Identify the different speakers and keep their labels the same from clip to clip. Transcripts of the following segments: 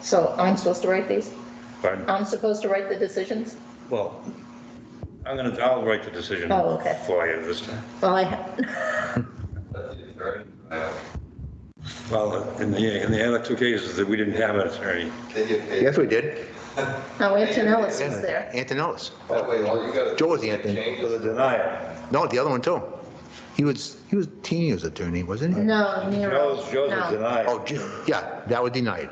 Speaker 1: So I'm supposed to write these?
Speaker 2: Pardon?
Speaker 1: I'm supposed to write the decisions?
Speaker 2: Well, I'm gonna, I'll write the decision
Speaker 1: Oh, okay.
Speaker 2: for you this time.
Speaker 1: Well, I, ha-
Speaker 2: Well, in the, in the other two cases that we didn't have an attorney,
Speaker 3: They get paid.
Speaker 4: Yes, we did.
Speaker 1: no, Antonellis was there.
Speaker 4: Antonellis.
Speaker 3: That way, all you gotta.
Speaker 4: Joe was
Speaker 3: do
Speaker 4: the
Speaker 3: is
Speaker 4: Anthony.
Speaker 3: change
Speaker 2: the
Speaker 3: it.
Speaker 2: denial.
Speaker 4: No, the other one too. He was, he was Tino's attorney, wasn't he?
Speaker 1: No, Nero.
Speaker 2: Joe's, Joe's a
Speaker 1: No.
Speaker 2: denial,
Speaker 4: Oh, Ju- yeah, that was denied.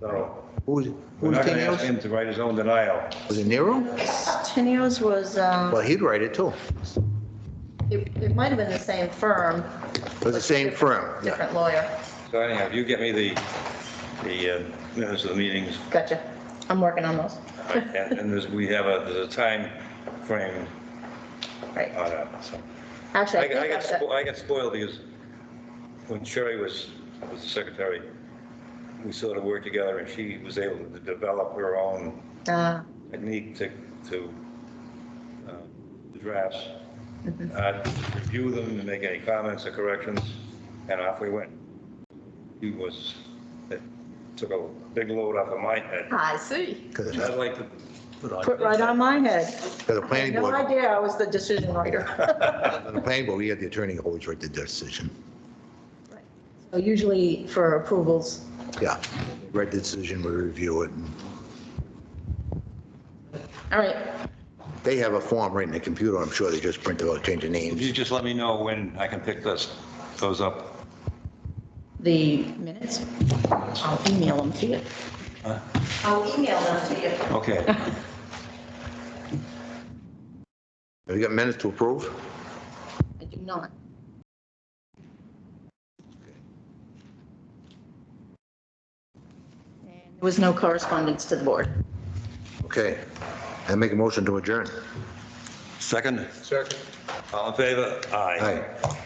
Speaker 2: so
Speaker 4: Who was, who
Speaker 2: we're
Speaker 4: was
Speaker 2: not gonna ask
Speaker 4: Tino's?
Speaker 2: him to write his own denial.
Speaker 4: Was it Nero?
Speaker 1: Teneros was, um,
Speaker 4: Well, he'd write it too.
Speaker 1: it, it might have been the same firm.
Speaker 4: It was the same firm, yeah.
Speaker 1: Different lawyer.
Speaker 2: So anyhow, if you get me the, the uh, minutes of the meetings,
Speaker 1: Gotcha. I'm working on those.
Speaker 2: and and there's, we have a, there's a time frame
Speaker 1: Right.
Speaker 2: on it, so.
Speaker 1: Actually,
Speaker 2: Uh, I
Speaker 1: I
Speaker 2: got, I
Speaker 1: think
Speaker 2: got,
Speaker 1: I've
Speaker 2: spo-
Speaker 1: got,
Speaker 2: I got spoiled because when Sherry was, was the secretary, we sort of worked together and she was able to develop her own
Speaker 1: uh,
Speaker 2: technique to, to uh, the drafts. I'd review them and make any comments or corrections, and off we went. He was, it took a big load off of my head.
Speaker 1: I see.
Speaker 4: Because
Speaker 2: I'd like to.
Speaker 1: Put right on my head.
Speaker 4: the planning
Speaker 1: No
Speaker 4: board,
Speaker 1: idea I was the decision writer.
Speaker 4: the planning board, we had the attorney always write the decision.
Speaker 1: So Usually for approvals,
Speaker 4: Yeah. Write the decision, we review it. and
Speaker 1: all right,
Speaker 4: They have a form right in the computer, I'm sure they just print it out, change the
Speaker 2: If
Speaker 4: names.
Speaker 2: you just let me know when I can pick this, those up.
Speaker 1: the minutes, I'll email them to you.
Speaker 2: Huh?
Speaker 1: I'll email them to you.
Speaker 2: Okay.
Speaker 4: Have you got minutes to approve?
Speaker 1: I do not. And There was no correspondence to the board.
Speaker 4: Okay. I make a motion to adjourn.
Speaker 2: Second?
Speaker 4: Second.
Speaker 2: All in favor?
Speaker 4: Aye.